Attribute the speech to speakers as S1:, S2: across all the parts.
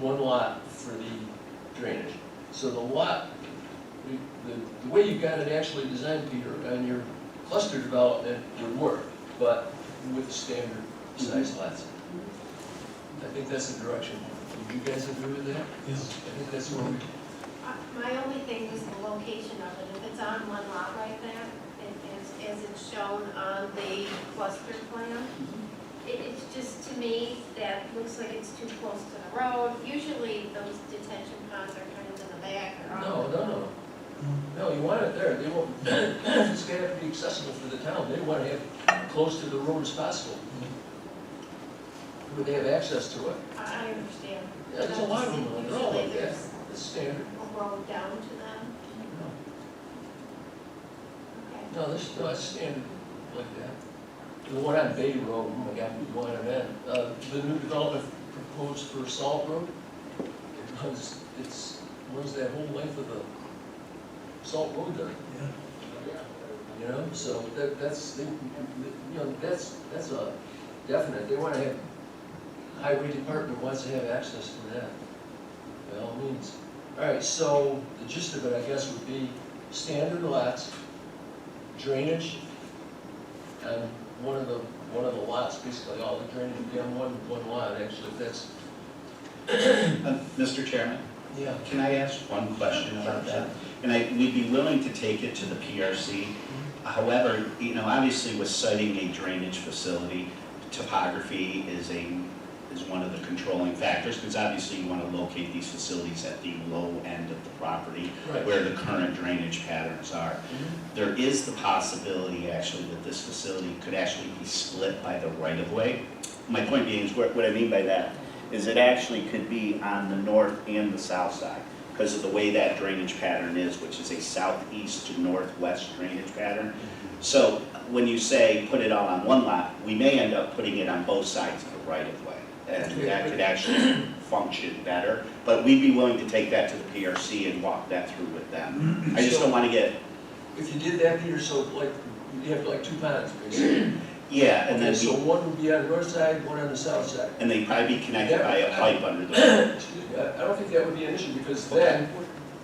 S1: one lot for the drainage. So the lot, the, the- the way you've got it actually designed, Peter, on your cluster development would work, but with the standard size lots. I think that's the direction. Would you guys agree with that? I think that's where we,
S2: Uh, My only thing was the location of it. If it's on one lot like that, and as, as it's shown on the cluster plan, it, it's just, to me, that looks like it's too close to the road. Usually those detention ponds are kind of in the back or on.
S1: no, no, no. No, you want it there. They won't, it's gonna have to be accessible for the town. They wanna have it close to the road as possible. Would they have access to it?
S2: I I understand.
S1: Yeah, there's a lot of them, they're all like
S2: Usually
S1: that.
S2: there's
S1: It's standard.
S2: a road down to them. Okay.
S1: No, this, no, it's standard like that. The one on Bay Road, oh my God, we want it in. Uh, the new development proposed for Salt Road, it runs, it's, runs that whole length of the Salt Road there. You know, so that, that's, they- you know, that's, that's a definite, they wanna have, highway department wants to have access to that, by all means. All right, so the gist of it, I guess, would be standard lots, drainage, and one of the, one of the lots, basically, all the drainage would be on one, one lot, actually, if that's,
S3: Uh, Mr. Chairman,
S1: yeah.
S3: can I ask one question about that? And I, we'd be willing to take it to the PRC. However, you know, obviously with citing a drainage facility, topography is a, is one of the controlling factors, because obviously you want to locate these facilities at the low end of the property,
S1: Right.
S3: where the current drainage patterns are. There is the possibility, actually, that this facility could actually be split by the right-of-way. My point being is, what what I mean by that is it actually could be on the north and the south side because of the way that drainage pattern is, which is a southeast to northwest drainage pattern. So when you say put it all on one lot, we may end up putting it on both sides of the right-of-way. And that could actually function better, but we'd be willing to take that to the PRC and walk that through with them. I just don't want to get
S1: If you did that, Peter, so like, you'd have like two ponds, basically.
S3: Yeah, and
S1: Okay,
S3: then
S1: so
S3: we,
S1: one would be on the north side, one on the south side.
S3: and they probably be connected by a pipe under the,
S1: Excuse me, I I don't think that would be an issue, because then,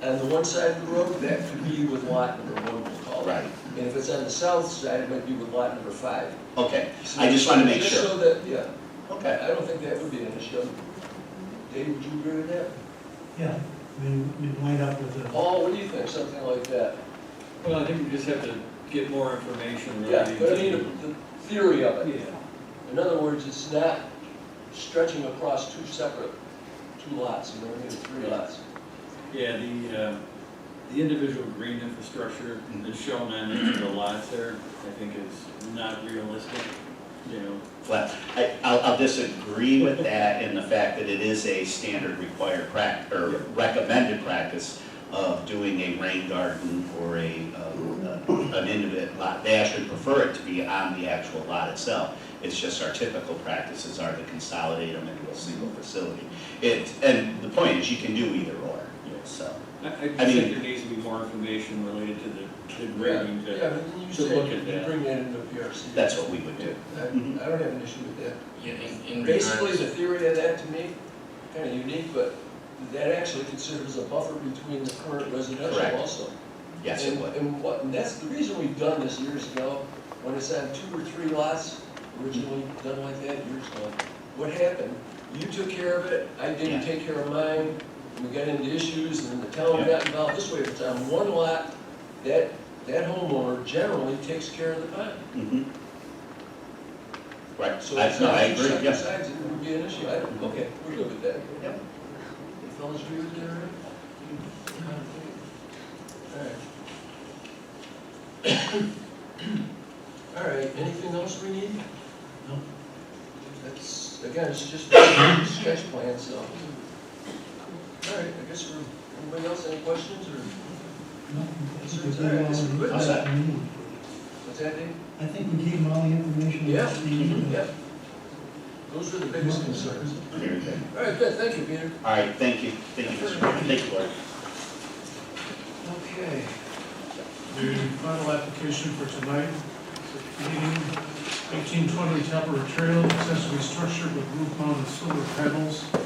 S1: on the one side of the road, that could be with lot number one, we'll call it.
S3: right,
S1: And if it's on the south side, it might be with lot number five.
S3: okay,
S1: So
S3: I just wanna make
S1: just
S3: sure.
S1: so that, yeah,
S3: Okay,
S1: I I don't think that would be an issue. Dave, would you agree with that?
S4: Yeah, we, we wind up with a,
S1: Paul, what do you think, something like that?
S5: Well, I think we just have to get more information.
S1: Yeah,
S5: related
S1: but I
S5: to-
S1: mean, the theory of it.
S5: Yeah,
S1: In other words, it's not stretching across two separate, two lots, you know, maybe three lots.
S5: yeah, the, uh, the individual green infrastructure that's shown on each of the lots there, I think is not realistic, you know.
S3: well, I, I'll, I'll disagree with that in the fact that it is a standard required prac, or recommended practice of doing a rain garden or a, um, uh, an individual lot. They actually prefer it to be on the actual lot itself. It's just our typical practices are to consolidate them into a single facility. It, and the point is, you can do either or, so.
S5: I, I just
S3: I mean-
S5: think there needs to be more information related to the, the grading
S1: Yeah,
S5: that,
S1: but you
S5: to
S1: say
S5: look at
S1: you
S5: that.
S1: Bring that into PRC.
S3: That's what we would
S1: Yeah,
S3: do.
S1: I I don't have an issue with that.
S6: Yeah, in, in regards.
S1: Basically, the theory of that to me, kind of unique, but that actually considers a buffer between the current residential
S3: Correct.
S1: also.
S3: Yes, it
S1: And-
S3: would.
S1: And what, and that's the reason we've done this years ago, when it's on two or three lots, originally done like that years ago. What happened? You took care of it, I didn't
S3: Yeah.
S1: take care of mine, and we got into issues, and then the town
S3: Yeah.
S1: got involved. This way, if it's on one lot, that, that homeowner generally takes care of the pond.
S3: Mhm. Right,
S1: So
S3: I,
S1: it's
S3: no,
S1: not
S3: I
S1: two
S3: agree,
S1: separate
S3: yeah.
S1: sides, it would be an issue, I don't, okay, we're good with that.
S3: Yep.
S1: You fellas agree with that, all right? All right. All right, anything else we need?
S4: No.
S1: That's, again, it's just a sketch plan, so. All right, I guess we're, anybody else, any questions, or,
S4: no, I think we gave all
S1: It's
S4: the-
S1: good.
S3: How's that?
S1: what's that, Dave?
S4: I think we gave all the information.
S1: Yeah,
S4: that we needed.
S1: yeah. Those are the biggest concerns.
S3: Very good.
S1: All right, good, thank you, Peter.
S3: All right, thank you, thank you, Mr. Chairman. thank you, Laura.
S1: Okay.
S7: The final application for tonight, meeting eighteen twenty Tapper Trail, accessory structure with roof mounted solar panels,